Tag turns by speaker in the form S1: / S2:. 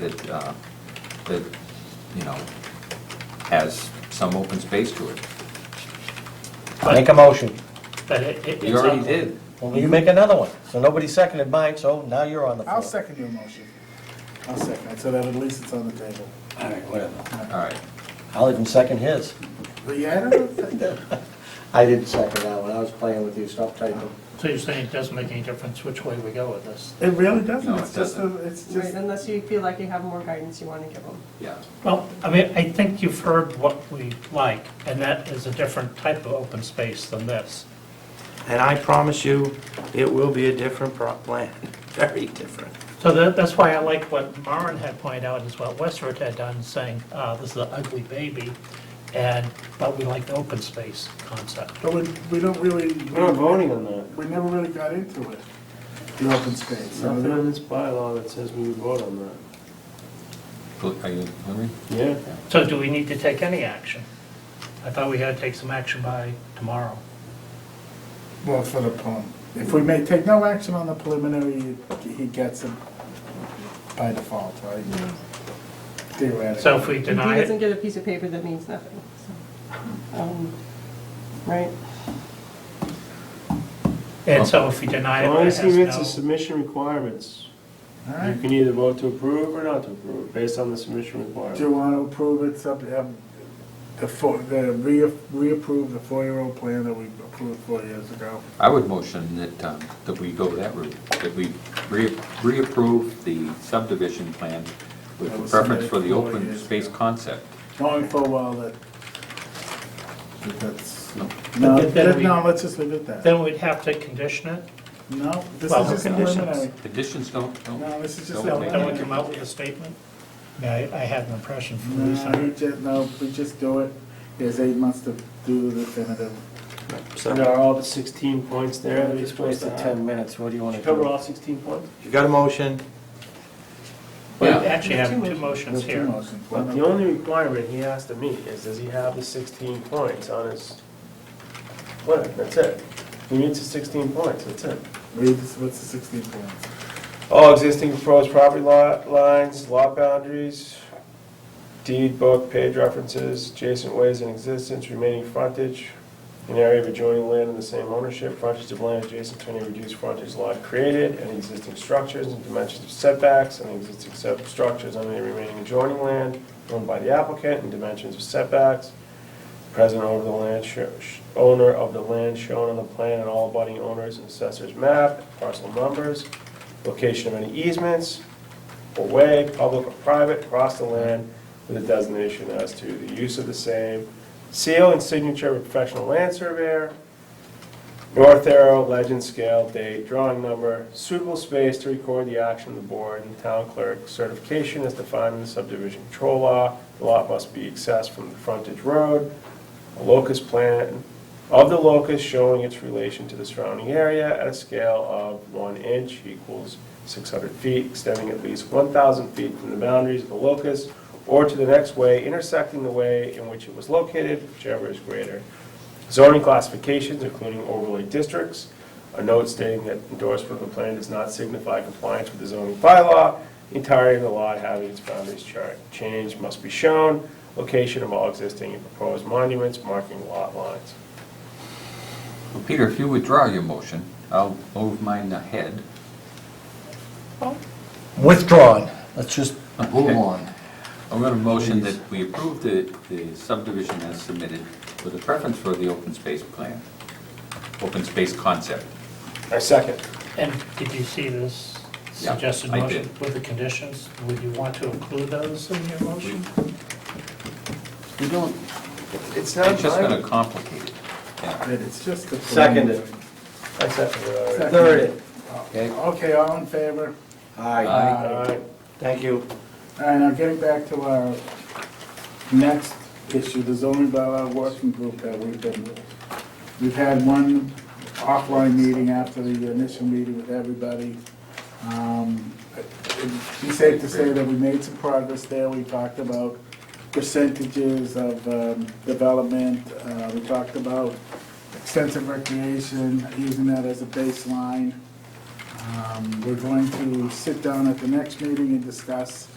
S1: that, uh, that, you know, has some open space to it.
S2: Make a motion.
S3: But it, it.
S1: You already did.
S2: Well, you make another one. So nobody seconded mine, so now you're on the floor.
S4: I'll second your motion. I'll second, it, so that at least it's on the table.
S2: All right, whatever.
S1: All right.
S2: I'll even second his.
S4: But yeah, I don't think that,
S2: I didn't second that one. I was playing with you. Stop typing.
S3: So you're saying it doesn't make any difference which way we go with this?
S4: it really doesn't,
S1: No, it
S4: it's just, a-
S1: doesn't.
S4: it's
S5: Right,
S4: just,
S5: unless you feel like you have more guidance you want to give them.
S1: Yeah.
S3: Well, I mean, I think you've heard what we like, and that is a different type of open space than this.
S6: And I promise you, it will be a different pro- plan, very different.
S3: So that, that's why I like what Maren had pointed out, is what Westford had done, saying, uh, this is an ugly baby, and, but we like the open space concept.
S4: but we, we don't really,
S6: We're not voting on that.
S4: we never really got into it, the open space. so
S6: Nothing
S4: that-
S6: in this bylaw that says we would vote on that.
S1: Are you, Larry?
S6: Yeah.
S3: So do we need to take any action? I thought we had to take some action by tomorrow.
S4: Well, for the poem. If we may take no action on the preliminary, he gets it by default, right? Theoretically.
S3: So if we
S5: If he
S3: deny
S5: doesn't
S3: it,
S5: get a piece of paper, that means nothing, so, um, right?
S3: and so if we deny
S6: As
S3: it,
S6: long
S3: it
S6: as he meets the
S3: has no,
S6: submission requirements,
S4: All
S6: you
S4: right,
S6: can either vote to approve or not to approve, based on the submission
S4: do you
S6: requirement.
S4: want to approve it, sub, have the four, the re, reapprove the four-year-old plan that we approved four years ago?
S1: I would motion that, um, that we go that route, that we re- reapprove the subdivision plan
S4: That
S1: with
S4: was
S1: preference
S4: submitted
S1: for the
S4: four
S1: open
S4: years
S1: space
S4: ago.
S1: concept.
S4: Knowing full well that, that that's,
S1: No.
S4: no,
S3: But then
S4: that-
S3: we-
S4: no, let's just leave it at that.
S3: then we'd have to condition it?
S4: No, this
S3: Well,
S4: is just
S3: conditions.
S4: preliminary.
S1: Conditions don't, don't.
S4: No, this is just
S1: don't
S4: a-
S1: make
S3: Then we
S1: it.
S3: come out with a statement? Yeah, I, I had an impression from Lisa.
S4: No, we just, no, we just do it, there's eight months to do the definitive.
S6: So there are all the 16 points there that he's
S2: Just
S6: supposed to
S2: wasted
S6: have.
S2: 10 minutes. What do you want to
S6: Cover
S2: do?
S6: all 16 points?
S7: You got a motion,
S3: We
S1: Yeah.
S3: actually have
S5: Two
S3: two
S4: There's
S3: motions
S4: two
S3: here.
S4: motions.
S6: But the only requirement he has to meet is, does he have the 16 points on his plan? That's it. He meets the 16 points, that's it.
S4: Read, this- what's the sixteen points?
S6: All existing proposed property lot lines, lot boundaries, deed book, page references, adjacent ways in existence, remaining frontage, an area of adjoining land in the same ownership, frontage of land adjacent to any reduced frontage lot created, and existing structures and dimensions of setbacks, and existing sub- structures on any remaining adjoining land owned by the applicant, and dimensions of setbacks, present owner of the land, sho- sh- owner of the land shown on the plan and all abutting owners and assessors map, parcel numbers, location of any easements, or way, public or private, across the land with a designation as to the use of the same, seal and signature of professional land surveyor, North arrow, legend, scale, date, drawing number, suitable space to record the action of the board and town clerk, certification as defined in the subdivision control law, the lot must be accessed from the frontage road, a locus plan of the locus showing its relation to the surrounding area at a scale of one inch equals six hundred feet, extending at least one thousand feet from the boundaries of the locus or to the next way intersecting the way in which it was located, whichever is greater. Zoning classifications, including overlay districts, a note stating that endorsement of the plan does not signify compliance with the zoning bylaw, The entirety of the lot having its boundaries char- changed must be shown, location of all existing and proposed monuments, marking lot lines.
S1: Well, Peter, if you withdraw your motion, I'll move mine ahead.
S2: Withdrawn. Let's just move
S1: Okay.
S2: on.
S1: I'm going to motion that we approve the, the subdivision as submitted with a preference for the open space plan, open space concept.
S6: I second.
S3: And did you see this
S1: Yeah,
S3: suggested
S1: I
S3: motion
S1: did.
S3: with the conditions? Would you want to include those in your motion?
S1: We don't,
S6: It's not
S1: it's just going
S6: mine.
S1: to complicate it. Yeah.
S4: That it's just the.
S2: Seconded.
S6: I second it already.
S4: Second.
S2: Third.
S4: preliminary. Okay, all in favor?
S2: Aye.
S1: Aye.
S6: Aye.
S2: Thank you.
S4: All right, now getting back to our next issue, the zoning bylaw working group that we've been with. We've had one offline meeting after the initial meeting with everybody. Um, It's safe to say that we made some progress there. We talked about percentages of um, development. Uh, We talked about extensive recreation, using that as a baseline. Um, We're going to sit down at the next meeting and discuss